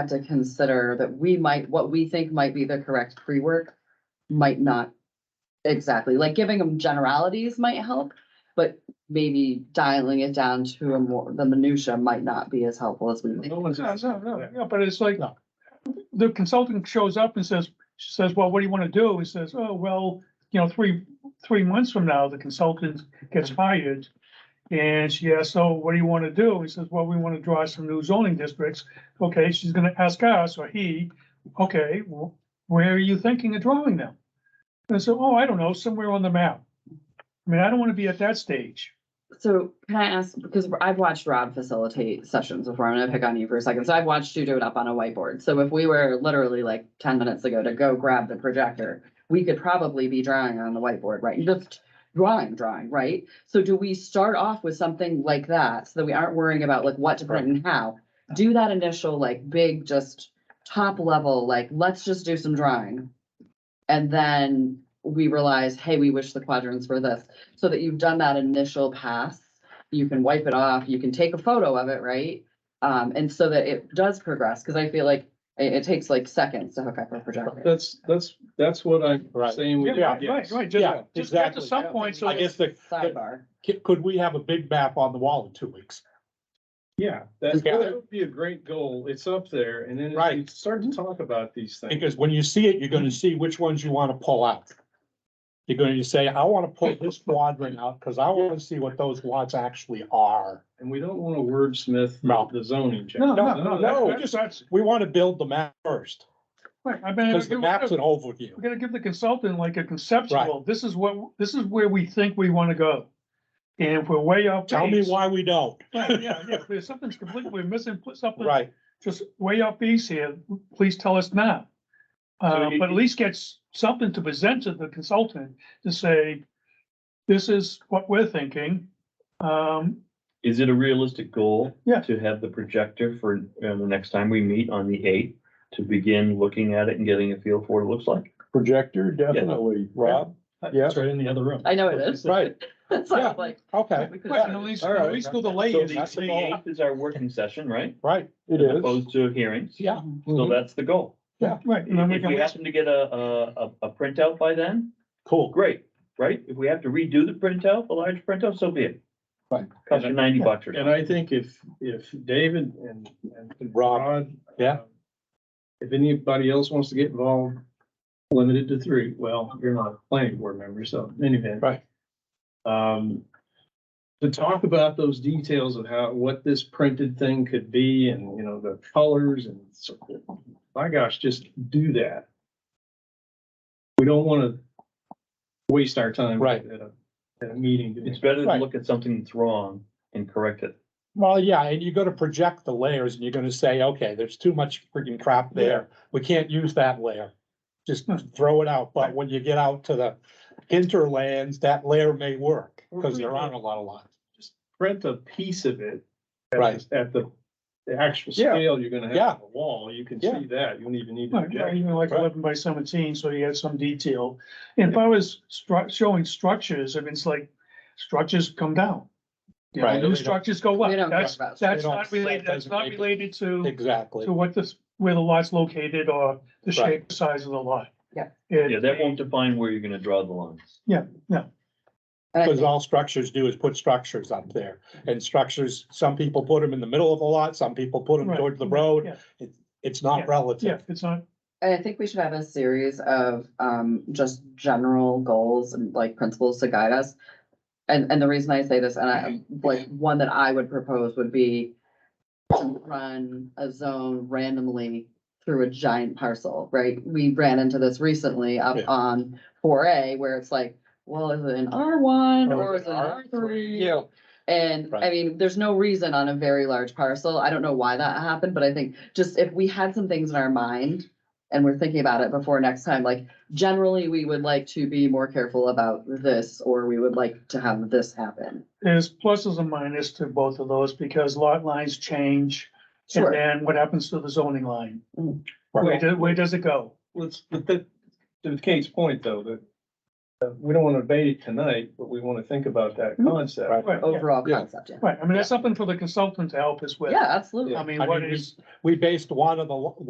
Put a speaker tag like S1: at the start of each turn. S1: had to consider that we might, what we think might be the correct pre-work might not exactly, like giving them generalities might help, but maybe dialing it down to a more, the minutia might not be as helpful as we. might.
S2: No one's-
S3: No, no, no, yeah, but it's like, the consultant shows up and says, she says, well, what do you wanna do? He says, oh, well, you know, three, three months from now, the consultant gets
S2: Mm-hmm.
S3: hired. And she asks, so what do you wanna do? He says, well, we wanna draw some new zoning districts. Okay, she's gonna ask us or he, okay, wh- where are you thinking of drawing them? And so, oh, I don't know, somewhere on the map. I mean, I don't wanna be at that stage.
S1: So can I ask, because I've watched Rob facilitate sessions before, I'm gonna pick on you for a second, so I've watched you do it up on a whiteboard. So if we were literally like ten minutes ago to go grab the projector, we could probably be drawing on the whiteboard, right? Just drawing, drawing, right? So do we start off with something like that, so that we aren't worrying about like what to print and how? Do that initial like big, just top level, like, let's just do some drawing. And then we realize, hey, we wish the quadrants were this so that you've done that initial pass. You can wipe it off, you can take a photo of it, right? Um, and so that it does progress, because I feel like it, it takes like seconds to hook up a projector.
S2: That's, that's, that's what I'm
S4: Right.
S2: saying. we-
S3: Yeah, right,
S2: yes.
S3: right,
S4: Yeah,
S3: just, just get to
S4: exactly.
S3: some point, so.
S4: I guess the,
S1: Sidebar.
S4: could- could we have a big map on the wall in two weeks?
S2: Yeah, that,
S4: Yeah.
S2: that would be a great goal. It's up there and then if you
S4: Right.
S2: start
S3: Mm-hmm.
S2: to talk about these things.
S4: Because when you see it, you're gonna see which ones you wanna pull out. You're gonna say, I wanna pull this quadrant out, cause I wanna see what those lots actually are.
S2: And we don't want to wordsmith
S4: No.
S2: the zoning. Jack.
S3: No, no,
S4: No,
S3: no,
S4: no,
S3: that- that's,
S4: just-
S3: that's,
S4: We wanna build the map first,
S3: right, I mean.
S4: cause the
S3: you-
S4: map's an
S3: We're
S4: overview.
S3: gonna give the consultant like a conceptual, this is what, this is where we think we wanna go. And if we're way off.
S4: Tell me
S3: base-
S4: why we don't.
S3: Right, yeah, yeah, if there's something's completely, we're missing pl- something,
S4: Right,
S3: just way off base here, please tell us now.
S2: So
S3: Uh,
S2: you-
S3: but at least get s- something to present to the consultant to say, this is what we're thinking. Um,
S5: Is it a realistic goal?
S3: Yeah.
S5: To have the projector for, uh, the next time we meet on the eighth, to begin looking at it and getting a feel for what it looks like?
S6: Projector, definitely, Rob. Yeah,
S4: that's right in the other room.
S1: I know it is.
S4: Right,
S1: That's why
S4: Yeah.
S1: I'm like,
S4: okay,
S1: we could-
S3: right, and at least,
S4: all right.
S3: at least go the
S5: So
S3: layers.
S5: the
S4: that's the goal.
S5: eighth is our working session, right?
S4: right,
S6: it
S5: As
S6: is.
S5: Opposed to hearings.
S4: yeah.
S5: So that's the goal.
S3: Right, Mm-hmm. and then we
S5: If we
S3: can,
S5: happen to get a, a, a- a printout by then,
S4: Cool.
S5: great, right? If we have to redo the printout, a large printout, so be it.
S4: Right.
S5: Cost you ninety bucks or
S2: And
S5: something.
S2: I think if, if David and, and
S4: Rob,
S2: Rod.
S4: yeah.
S2: um, If anybody else wants to get involved, limited to three, well, you're not a planning board member, so in any event.
S4: Right.
S2: Um, to talk about those details of how, what this printed thing could be and, you know, the colors and so, my gosh, just do that. We don't wanna waste our time.
S4: Right.
S2: At a, at a meeting. doing
S5: It's better to
S4: Right.
S5: look at something that's wrong and correct it.
S4: Well, yeah, and you're gonna project the layers and you're gonna say, okay, there's too much freaking crap there. We can't use that layer. Just
S3: Hmm.
S4: throw it out. But when you get out to the interlands, that layer may work because
S3: Mm-hmm.
S4: there aren't a lot of lots.
S2: print a piece of it. at
S4: Right.
S2: the- At the, the actual
S4: Yeah.
S2: scale you're gonna
S4: Yeah.
S2: have on the wall, you can
S4: Yeah.
S2: see that, you don't even need. to
S3: right, right,
S2: project.
S3: even like eleven by seventeen, so you had some detail. And if I was stru- showing structures, I mean, it's like, structures come down. You know,
S4: Right.
S3: New structures go up,
S1: We don't
S3: that's,
S1: talk about-
S3: that's
S4: They don't-
S3: not related,
S4: that
S3: that's
S4: doesn't
S3: not
S4: make it-
S3: related to,
S4: Exactly.
S3: to what this, where the lot's located or the
S4: Right.
S3: shape, size of the lot.
S1: Yeah.
S3: It-
S5: Yeah, that won't define where you're gonna draw the lines.
S1: and I
S4: Because
S1: think-
S4: all structures do is put structures up there. And structures, some people put them in the middle of the lot, some people put them
S3: Right.
S4: toward the road.
S3: Yeah.
S4: It- It's not
S3: Yeah,
S4: relative.
S3: it's on,
S1: And I think we should have a series of um just general goals and like principles to guide us. And and the reason I say this, and I like one that I would propose would be to run a zone randomly through a giant parcel, right? We ran into this recently up
S4: Yeah.
S1: on four A where it's like, well, is it an R one
S4: Or
S1: or
S4: Oh, is
S1: is it an R three?
S4: Yeah.
S1: And I
S4: Right.
S1: mean, there's no reason on a very large parcel. I don't know why that happened, but I think just if we had some things in our mind and we're thinking about it before next time, like generally we would like to be more careful about this or we would like to have this happen.
S3: there's pluses and minuses to both of those, because lot lines change. And
S1: Sure.
S3: then what happens to the zoning line?
S1: Mm.
S3: Where, do- where does it go?
S2: Let's, but that, to Kate's point though, that uh, we don't want to debate it tonight, but we want to think about that concept.
S4: Mm-hmm. Right.
S3: Right, yeah,
S1: overall
S4: Yeah.
S1: concept, yeah.
S3: right. I mean, that's something for the consultant to help us with.
S1: Yeah, absolutely.
S3: I mean,
S4: I
S3: what
S4: mean, we-
S3: is.
S4: We based one of the, lo-